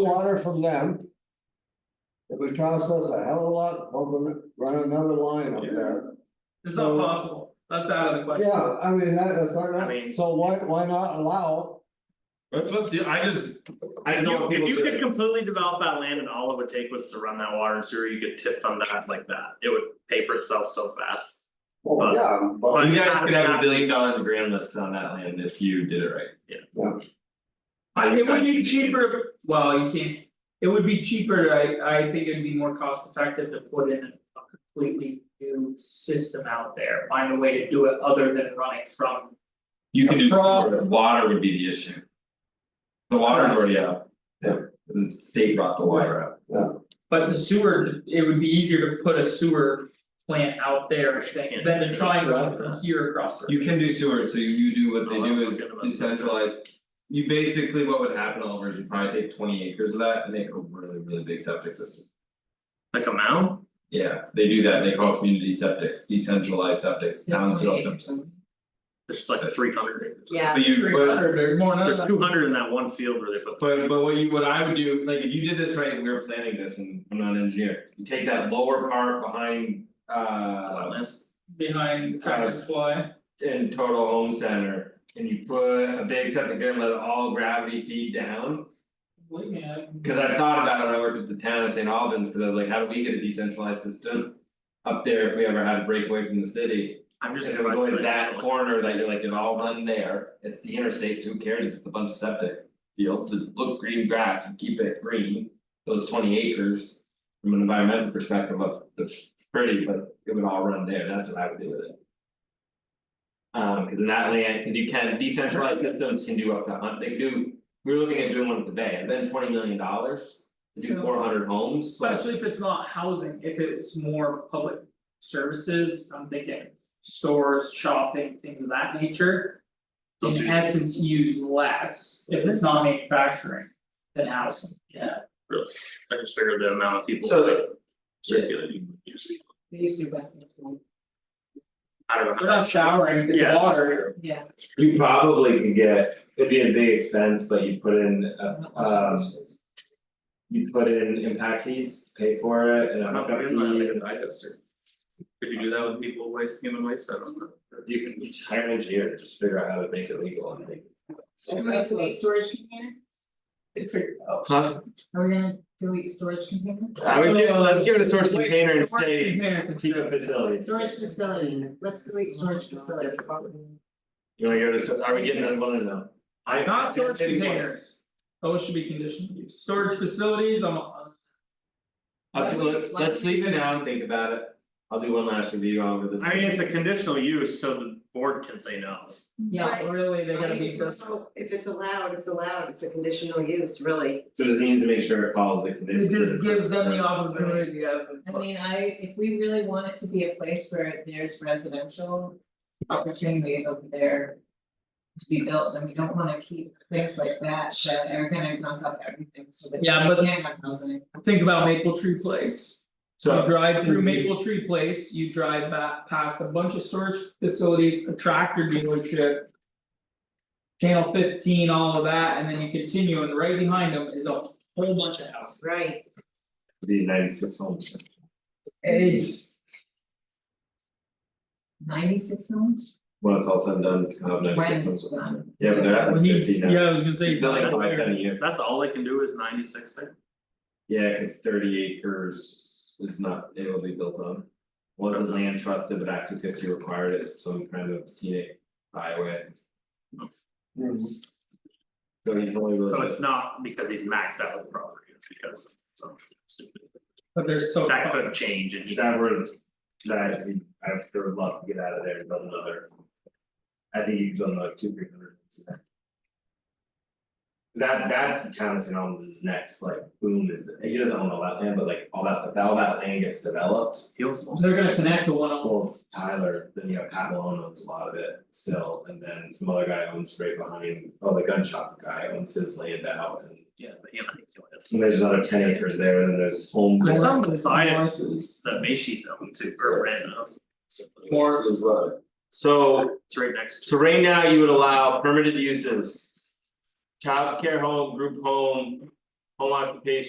water from them. It would cost us a hell of a lot, bumping, run another line up there, It's not possible, that's out of the question. yeah, I mean, that is I not, mean- so why, why not allow? That's what, the- I just, I If know you, what if people you could do, completely develop that land and all it would take was to run that water and sewer, you could tip fund that like that, it would pay for itself so fast. Well, yeah, but, But- You guys could have a billion dollars of grand listed on that land if you did it right. I- it would be cheaper, if- well, you can't, it would be cheaper, I I think it'd be more cost effective to put in a completely new system out there, find a way to do it other than running from. You could do, The problem- sewer, but water would be the issue. The water's already out. Yeah. The state brought the water out. But the sewer, it would be easier to put a sewer plant out there than than to try and run from here across the. You can do sewer, so you do what they Oh, do I'm is forgetting about that. decentralize. You basically, what would happen over is you'd probably take twenty acres of that and make a really, really big septic system. Like a mound? Yeah, they do that, they call it community septics, decentralized septics, towns do them. There's like three hundred acres. Yeah. But you, Three but hundred, there's more than There's that. two hundred in that one field where they put. But but what you, what I would do, like if you did this right, and we were planning this and I'm not an engineer, you take that lower part behind uh. Wetlands. behind Tractor Supply. In total home center and you put a big septic there and let it all gravity feed down. Believe me, I- Cause I thought about it when I worked at the town of St. Albans, cause I was like, how do we get a decentralized system? Up there if we ever had a breakaway from the city, I'm and just. it would go in that corner that you're like, it all run there, it's the interstate, so who cares if it's a bunch of septic. Fields, it look green grass, and keep it green, those twenty acres. From an environmental perspective, look, it's pretty, but it would all run there, that's what I would do with it. Um, cause in that land, you can decentralized systems can do up to hunt, they can do, we were looking at doing one at the bay, and then twenty million dollars. to So- Do four hundred homes, but Especially if it's not housing, if it's more public services, I'm thinking stores, shopping, things of that nature. In Those are- essence, use less if it's not manufacturing than housing, yeah. I just figured the amount of people So- that circulating. would use it. I don't know. how They're not showering, it's Yeah. water, Yeah. You probably could get, it'd be a big expense, but you put in a um. You put in impact fees, pay for it and a I'm not hookup gonna fee be in and that digester. Could you do that with people waste, human waste, I don't know. you can just hire an engineer to just figure out how to make it legal and make. Are we gonna delete storage container? they figure it out. Huh, Are we gonna delete storage container? I would give, let's give it a source Wait, container and storage say, container can keep it facility. Storage facility, let's delete storage facility. You wanna go to, sto- are we getting that one or no? I. Not storage containers, those should be conditional use, storage facilities, I'm. I'll do it, let's leave it now and think about it, I'll do one last review over this. I mean, it's a conditional use, so the board can say no. Yeah, Right. really, they're gonna be just. If it's allowed, it's allowed, it's a conditional use, really. So the needs to make sure it follows the condition. It just gives them the opportunity of. I mean, I, if we really want it to be a place where there's residential opportunities over there. To be built, then we don't wanna keep things like that, that are gonna gunk up everything, so that we Yeah, but- can't have housing. Think about Maple Tree Place. So. You drive through Mhm. Maple Tree Place, you drive back past a bunch of storage facilities, a tractor dealership. Channel fifteen, all of that, and then you continue and right behind them is a whole bunch of houses. Right. Be ninety six homes. It's. Ninety-six homes? When it's all said and done, kind of When ninety it's six homes. done. Yeah, but they're at Well, like he's- fifty now. yeah, I was gonna say. They're like but five ten they're- a year. That's all they can do is ninety six there. Yeah, cause thirty acres is not, it will be built on. Wasn't land trusted, but Act two fifty required it, as some kind of scenic byway. So you can only really. So it's not because he's maxed out the property, it's because of something stupid. But they're so. That could change and he. that were, that he, I would love to get out of there, but another. I think you've done like two, three hundred. That that's the town of St. Albans is next, like boom is, he doesn't own all that land, but like all that, if all that land gets developed. He owns most of They're gonna connect to one of Well, Tyler, then you have Pat Malone owns a lot of it still, and then some other guy owns right behind, oh, the gun shop guy owns his land out and. yeah, but he owns it. And there's another ten acres there, and then there's home. There's some court. beside them, it Morris's. that Macy's owned too, or ran out. Morris. So, It's right next so to. right now you would allow permitted uses. Childcare home, group home, home occupation